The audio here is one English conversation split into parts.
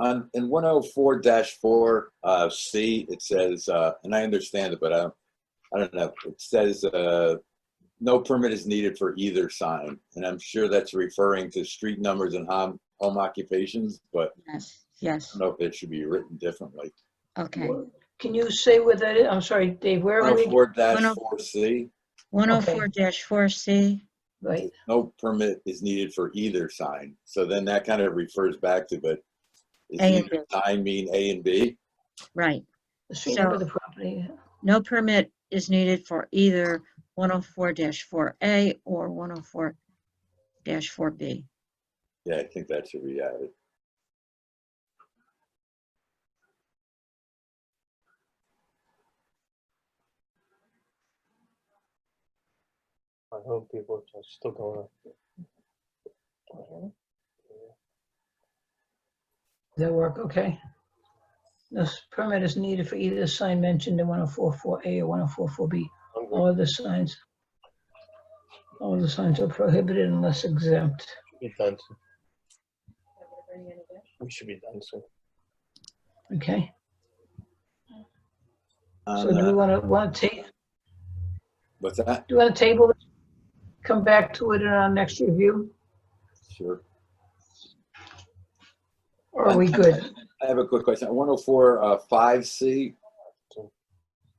on, in one oh four four, uh, C, it says, uh, and I understand it, but I don't, I don't know. It says, uh, no permit is needed for either sign, and I'm sure that's referring to street numbers and home, home occupations, but Yes, I yes, don't know if it should be written differently. okay. Can you say where that is? I'm sorry, Dave, where One are oh we? four four C, 104-4C, Right, no permit is needed for either sign. So then that kind of refers back to, but is A and either sign mean A and B? right. the street number of So- the property. No permit is needed for either 104-4A or 104-4B. Yeah, I think that should be added. I hope people are still going up. Does that work, okay? This permit is needed for either sign mentioned in 1044A or 1044B. I'm All going other signs, all other signs are prohibited unless exempt. to be done soon. We should be done soon. Okay, so On, do we uh, want to, want to take, what's that? do you want to table? this? Come back to it in our next review? Sure. Or are we good? I have a quick question. One oh four, five C.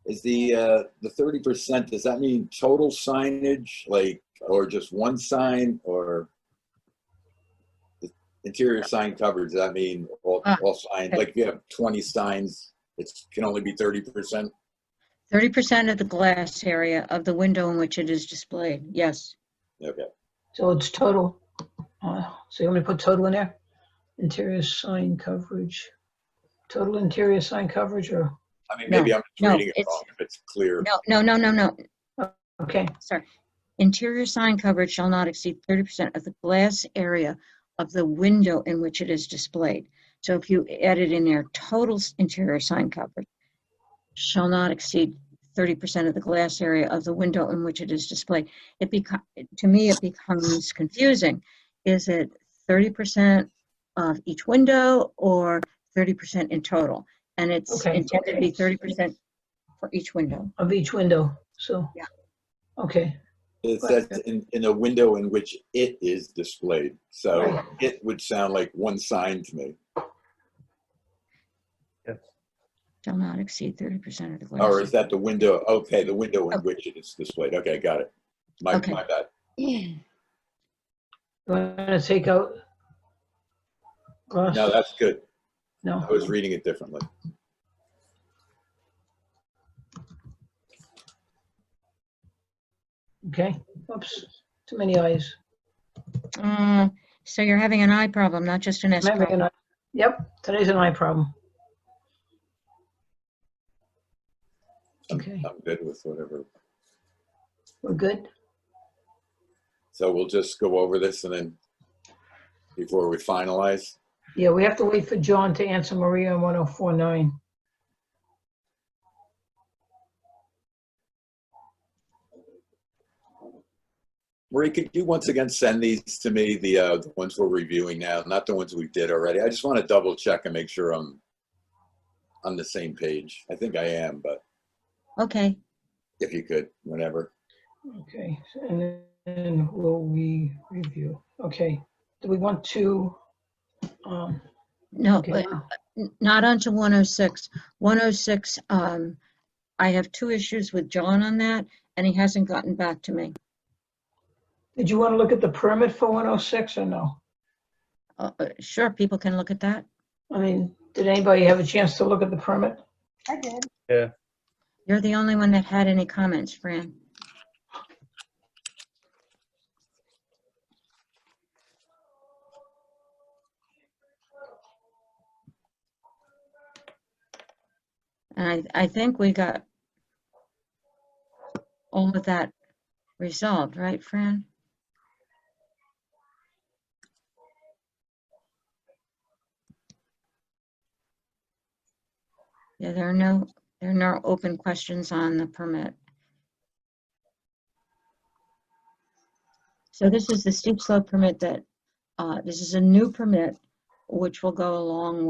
Is the, uh, the thirty percent, does that mean total signage, like, or just one sign, or? the Interior sign coverage, does that mean all, Ah, all signs, okay. like if you have twenty signs, it can only be thirty percent? 30% of the glass area of the window in which it is displayed, yes. Okay, So it's total. uh, So you want me to put total in there? Interior sign coverage, total interior sign coverage or, I mean, maybe I'm No, just reading it it's- wrong, if it's clear. No, no, no, no, no, okay, sorry. Interior sign coverage shall not exceed 30% of the glass area of the window in which it is displayed. So if you added in there total s- interior sign coverage shall not exceed 30% of the glass area of the window in which it is displayed. It become, to me, it becomes confusing. Is it 30% of each window or 30% in total? And it's Okay. intended to be 30% for each window. of each window, so. Yeah. Okay, It says in, in a window in which it is displayed, so Right. it would sound like one sign to me. Yes. Shall not exceed 30% of the glass. Or area. is that the window, okay, the window in Okay. which it is displayed, okay, got it. My, Okay. my bad. you want to take out? Glass? No, that's good, No. I was reading it differently. Okay, oops, too many eyes. Uh, So you're having an eye problem, not just an S Am I making problem. eye- Yep, today's an eye problem. I'm- Okay. I'm good with whatever, We're good? so we'll just go over this and then, before we finalize, Yeah, we have to wait for John to answer Maria on 1049. Marie, could you once again send these to me, the, uh, the ones we're reviewing now, not the ones we did already? I just want to double check and make sure I'm on the same page. I think I am, but Okay, if you could, whenever. Okay, and then will we review? Okay, do we want to, um, no, okay, but n- not onto 106. 106, um, I have two issues with John on that, and he hasn't gotten back to me. did you want to look at the permit for 106 or no? Uh, uh, Sure, people can look at that. I mean, did anybody have a chance to look at the permit? I did. You're the only one that had any comments, Fran. And I, I think we got all of that resolved, right, Fran? Yeah, there are no there are no open questions on the permit. So this is the steep slope permit that, uh, this is a new permit, which will go along